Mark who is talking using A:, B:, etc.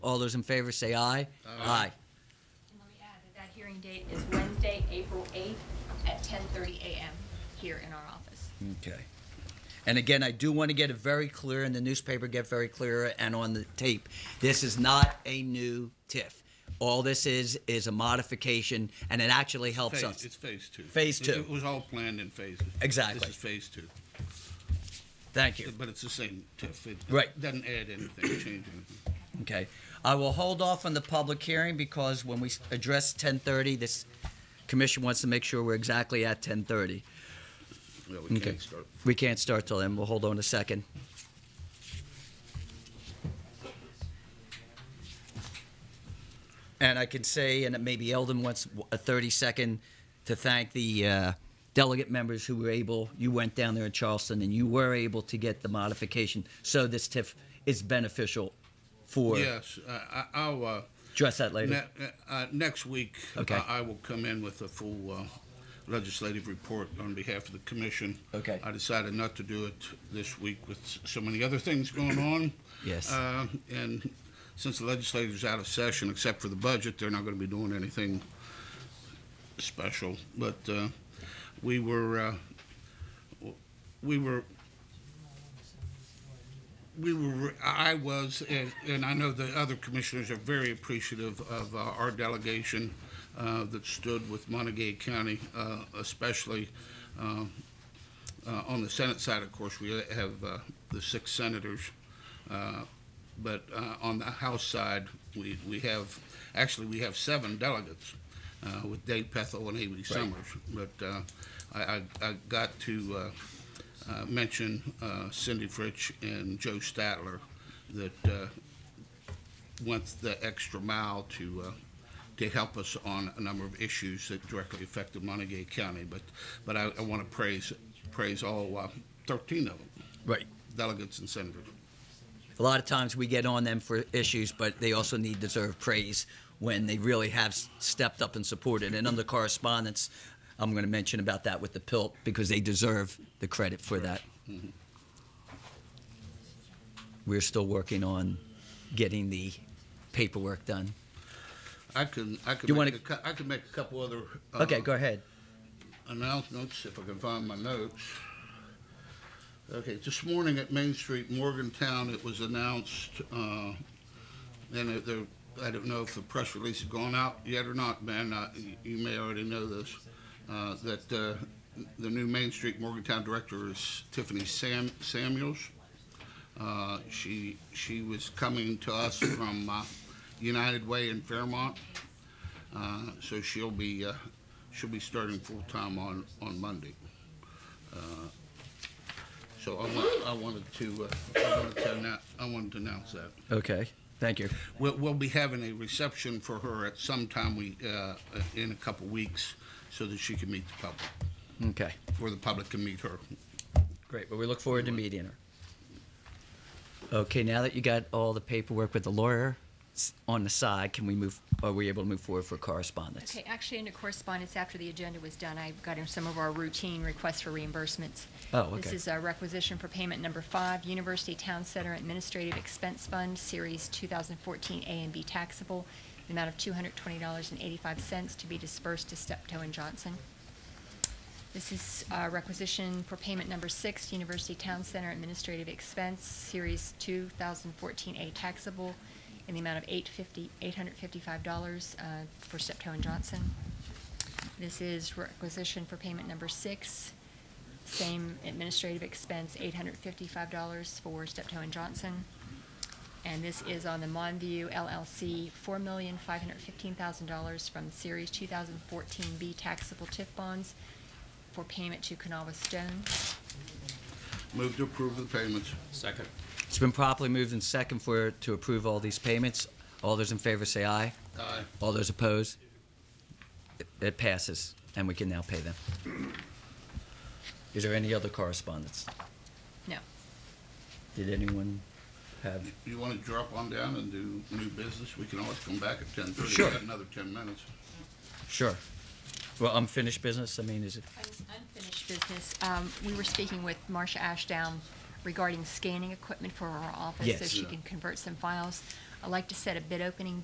A: All those in favor say aye. Aye.
B: And let me add that that hearing date is Wednesday, April 8th at 10:30 a.m. here in our office.
A: Okay. And again, I do want to get it very clear in the newspaper, get very clear and on the tape. This is not a new TIF. All this is, is a modification and it actually helps
C: Phase,
A: us.
C: it's phase two.
A: Phase
C: It-
A: two.
C: It was all planned in phases.
A: Exactly.
C: This is phase two,
A: Thank you.
C: but it's the same TIF. It
A: Right.
C: Doesn't add anything, change anything.
A: Okay. I will hold off on the public hearing because when we s- address 10:30, this commission wants to make sure we're exactly at 10:30.
C: Yeah, we
A: Okay.
C: can't start.
A: We can't start till then. We'll hold on a second. And I can say, and maybe Eldon wants a 30 second to thank the uh, delegate members who were able, you went down there in Charleston and you were able to get the modification. So this TIF is beneficial for,
C: Yes, uh, I- I'll, uh,
A: address that later.
C: ne- uh, next week,
A: Okay.
C: I I will come in with a full uh, legislative report on behalf of the commission.
A: Okay.
C: I decided not to do it this week with s- so many other things going on.
A: Yes.
C: Uh, And since the legislature's out of session, except for the budget, they're not going to be doing anything special. But uh, we were, uh, w- we were, we were, I was, and- and I know the other commissioners are very appreciative of uh, our delegation uh, that stood with Montague County, uh, especially uh, uh, on the Senate side, of course, we have uh, the six senators. uh, But uh, on the House side, we, we have, actually, we have seven delegates uh, with Dave Pethel and Amy Summers. But uh, I, I- I got to uh, uh, mention uh, Cindy Fritsch and Joe Statler that uh, went the extra mile to, uh, to help us on a number of issues that directly affected Montague County. But, but I, I want to praise, praise all uh, 13 of them,
A: Right.
C: delegates and senators.
A: A lot of times we get on them for issues, but they also need deserved praise when they really have s- stepped up and supported. And under correspondence, I'm going to mention about that with the PILT because they deserve the credit for that. We're still working on getting the paperwork done.
C: I can, I
A: You
C: can,
A: wanna-
C: make a cou- I can make a couple other uh,
A: Okay, go ahead.
C: announcements, if I can find my notes. Okay, this morning at Main Street, Morgantown, it was announced, uh, and it- there, I don't know if the press release has gone out yet or not, Ben, uh, y- you may already know this, uh, that uh, the new Main Street Morgantown director is Tiffany Sam Samuels. Uh, She, she was coming to us from uh, United Way in Fairmont. Uh, so she'll be, uh, she'll be starting full-time on, on Monday. Uh, So I want, I wanted to, uh, I wanted to announce, I wanted to announce that.
A: Okay, thank you.
C: We'll, we'll be having a reception for her at some time we, uh, in a couple weeks, so that she can meet the public,
A: Okay,
C: or the public can meet her.
A: great. But we look forward to meeting her. Okay, now that you got all the paperwork with the lawyer s- on the side, can we move? Are we able to move forward for correspondence?
B: Okay, actually, in the correspondence after the agenda was done, I got in some of our routine requests for reimbursements.
A: Oh,
B: This
A: okay.
B: is a requisition for payment number five, University Town Center Administrative Expense Fund, Series 2014 A and B taxable, the amount of $220.85 to be dispersed to Steptoe and Johnson. This is uh, requisition for payment number six, University Town Center Administrative Expense, Series 2014A taxable, in the amount of $850 $855 uh, for Steptoe and Johnson. This is requisition for payment number six, same administrative expense, $855 for Steptoe and Johnson. And this is on the Monview LLC, four million five hundred fifteen thousand dollars from Series two thousand fourteen B taxable TIF bonds for payment to Kanawha Stone.
C: Move to approve the payments.
D: Second.
A: It's been properly moved and second for, to approve all these payments. All those in favor say aye.
C: Aye.
A: All those opposed? It- It passes, and we can now pay them. Is there any other correspondence?
B: No,
A: Did anyone have?
C: You want to drop on down and do new business? We can always come back at ten thirty.
A: Sure.
C: Another ten minutes.
A: Sure. Well, unfinished business, I mean, is it?
B: unfinished business. Um, we were speaking with Marcia Ashdown regarding scanning equipment for our office so
A: Yes.
B: she can convert some files. I'd like to set a bid opening